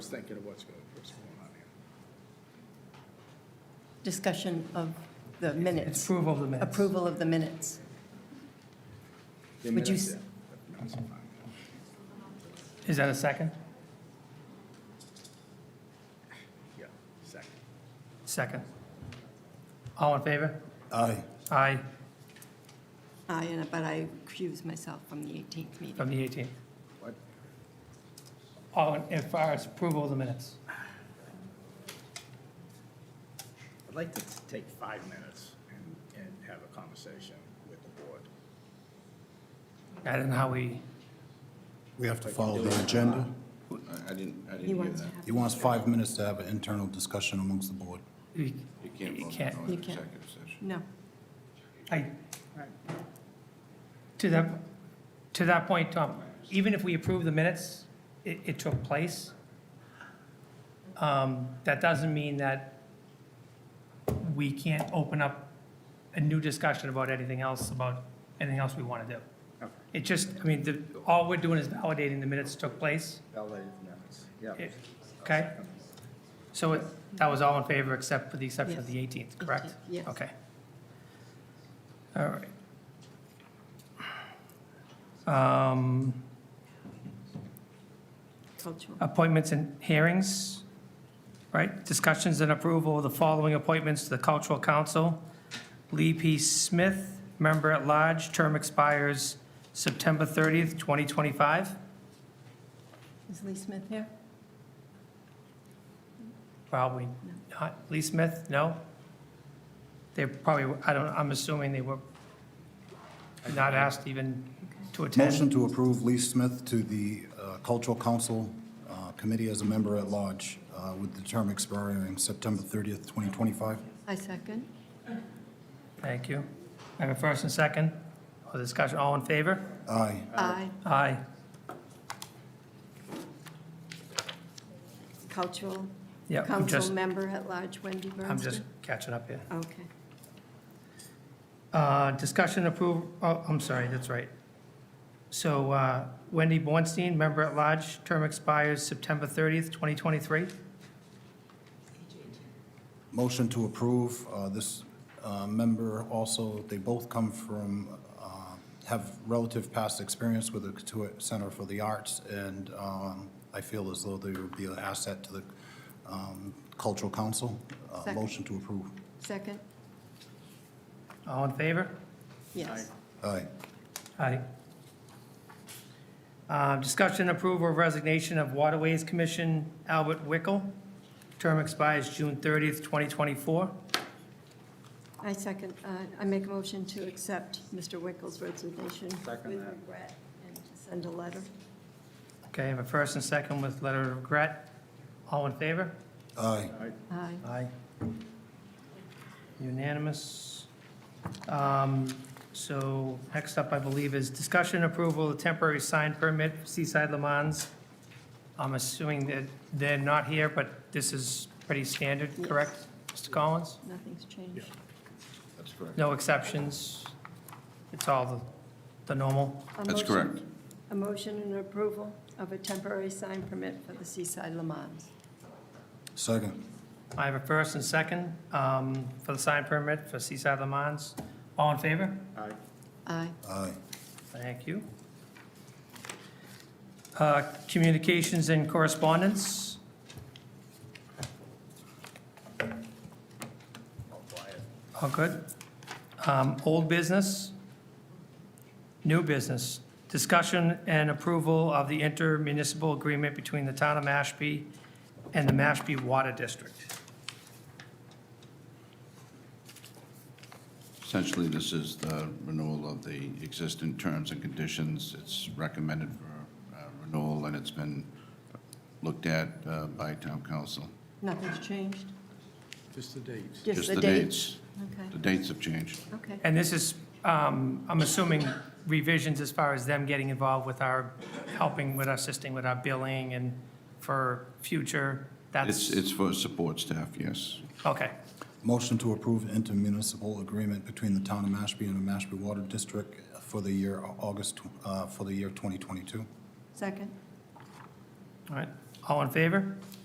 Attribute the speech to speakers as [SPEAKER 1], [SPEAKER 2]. [SPEAKER 1] was thinking of what's going, what's going on here.
[SPEAKER 2] Discussion of the
[SPEAKER 3] It's
[SPEAKER 2] minutes,
[SPEAKER 3] approval of the minutes.
[SPEAKER 2] approval of the minutes.
[SPEAKER 1] The
[SPEAKER 2] Would you
[SPEAKER 1] minutes,
[SPEAKER 2] s-
[SPEAKER 1] yeah. That's fine.
[SPEAKER 3] Is that a second?
[SPEAKER 1] Yeah, second.
[SPEAKER 3] Second. All in favor?
[SPEAKER 4] Aye.
[SPEAKER 3] Aye,
[SPEAKER 2] I, and- Ah, but I accuse myself from the 18th meeting.
[SPEAKER 3] from the 18th.
[SPEAKER 1] What?
[SPEAKER 3] All, in as far as approval of the minutes.
[SPEAKER 1] I'd like to take five minutes and, and have a conversation with the board.
[SPEAKER 3] I don't know how we,
[SPEAKER 4] We have to follow the agenda.
[SPEAKER 5] I- I didn't, I
[SPEAKER 2] He
[SPEAKER 5] didn't hear
[SPEAKER 2] wants to
[SPEAKER 5] that.
[SPEAKER 2] have.
[SPEAKER 4] He wants five minutes to have an internal discussion amongst the board.
[SPEAKER 3] we-
[SPEAKER 5] You can't
[SPEAKER 3] You
[SPEAKER 5] vote
[SPEAKER 3] can't.
[SPEAKER 5] on an
[SPEAKER 2] You can't.
[SPEAKER 5] executive session.
[SPEAKER 2] No,
[SPEAKER 3] I, to that, to that point, Tom, even if we approve the minutes, it, it took place. um, That doesn't mean that we can't open up a new discussion about anything else, about anything else we want to do.
[SPEAKER 1] Okay.
[SPEAKER 3] It just, I mean, the, all we're doing is validating the minutes took place,
[SPEAKER 1] Validated minutes, yeah.
[SPEAKER 3] It- okay? So it, that was all in favor except for the exception of
[SPEAKER 2] Yes.
[SPEAKER 3] the 18th, correct?
[SPEAKER 2] 18th, yes.
[SPEAKER 3] Okay. All right. Um,
[SPEAKER 2] cultural.
[SPEAKER 3] Appointments and hearings, right? Discussions and approval of the following appointments to the Cultural Council. Lee P. Smith, Member at Large, term expires September 30th, 2025.
[SPEAKER 2] Is Lee Smith here?
[SPEAKER 3] Probably not. Lee Smith, no? They're probably, I don't, I'm assuming they were not asked even to attend.
[SPEAKER 4] Motion to approve Lee Smith to the uh, Cultural Council uh, Committee as a member at large uh, with the term expiring September 30th, 2025.
[SPEAKER 2] I second.
[SPEAKER 3] Thank you. I have a first and second. All discussion, all in favor?
[SPEAKER 4] Aye.
[SPEAKER 3] Uh,
[SPEAKER 2] I,
[SPEAKER 3] Aye.
[SPEAKER 2] cultural,
[SPEAKER 3] Yeah, I'm
[SPEAKER 2] council
[SPEAKER 3] just,
[SPEAKER 2] member at large Wendy Bernstein.
[SPEAKER 3] I'm just catching up here.
[SPEAKER 2] Okay.
[SPEAKER 3] Uh, Discussion approve, oh, I'm sorry, that's right. So uh, Wendy Bornstein, member at large, term expires September 30th, 2023.
[SPEAKER 4] Motion to approve uh, this uh, member also, they both come from, uh, have relative past experience with the Katuitt Center for the Arts, and um, I feel as though they would be an asset to the um, Cultural Council. Uh,
[SPEAKER 2] Second.
[SPEAKER 4] Motion to approve.
[SPEAKER 2] Second?
[SPEAKER 3] All in favor?
[SPEAKER 2] Yes.
[SPEAKER 4] Aye.
[SPEAKER 3] Aye. Uh, Discussion approval of resignation of Waterways Commission Albert Wickel. Term expires June 30th, 2024.
[SPEAKER 2] I second, uh, I make a motion to accept Mr. Wickles' resignation
[SPEAKER 1] Second
[SPEAKER 2] with
[SPEAKER 1] that.
[SPEAKER 2] regret and to send a letter.
[SPEAKER 3] Okay, I have a first and second with letter of regret. All in favor?
[SPEAKER 4] Aye.
[SPEAKER 2] Aye.
[SPEAKER 3] Aye. Unanimous. Um, So next up, I believe, is discussion approval of temporary sign permit for Seaside Le Mans. I'm assuming that they're not here, but this is pretty standard,
[SPEAKER 2] Yes.
[SPEAKER 3] correct, Mr. Collins?
[SPEAKER 2] Nothing's changed.
[SPEAKER 5] That's correct.
[SPEAKER 3] No exceptions? It's all the, the normal?
[SPEAKER 2] A
[SPEAKER 5] That's
[SPEAKER 2] motion-
[SPEAKER 5] correct.
[SPEAKER 2] A motion and approval of a temporary sign permit for the Seaside Le Mans.
[SPEAKER 4] Second.
[SPEAKER 3] I have a first and second um, for the sign permit for Seaside Le Mans. All in favor?
[SPEAKER 1] Aye.
[SPEAKER 2] Aye.
[SPEAKER 4] Aye.
[SPEAKER 3] Thank you. Uh, Communications and correspondence. All good. Um, Old business. New business. Discussion and approval of the intermunicipal agreement between the town of Mashpee and the Mashpee Water District.
[SPEAKER 5] Essentially, this is the renewal of the existing terms and conditions. It's recommended for uh, renewal, and it's been looked at uh, by town council.
[SPEAKER 2] Nothing's changed?
[SPEAKER 1] Just the dates.
[SPEAKER 5] Just the dates. The
[SPEAKER 2] Okay,
[SPEAKER 5] dates have changed.
[SPEAKER 2] okay.
[SPEAKER 3] And this is, um, I'm assuming revisions as far as them getting involved with our, helping with, assisting with our billing and for future,
[SPEAKER 5] It's,
[SPEAKER 3] that's,
[SPEAKER 5] it's for support staff, yes.
[SPEAKER 3] okay.
[SPEAKER 4] Motion to approve intermunicipal agreement between the town of Mashpee and the Mashpee Water District for the year August, tw- uh, for the year 2022.
[SPEAKER 2] Second?
[SPEAKER 3] All right, All in favor?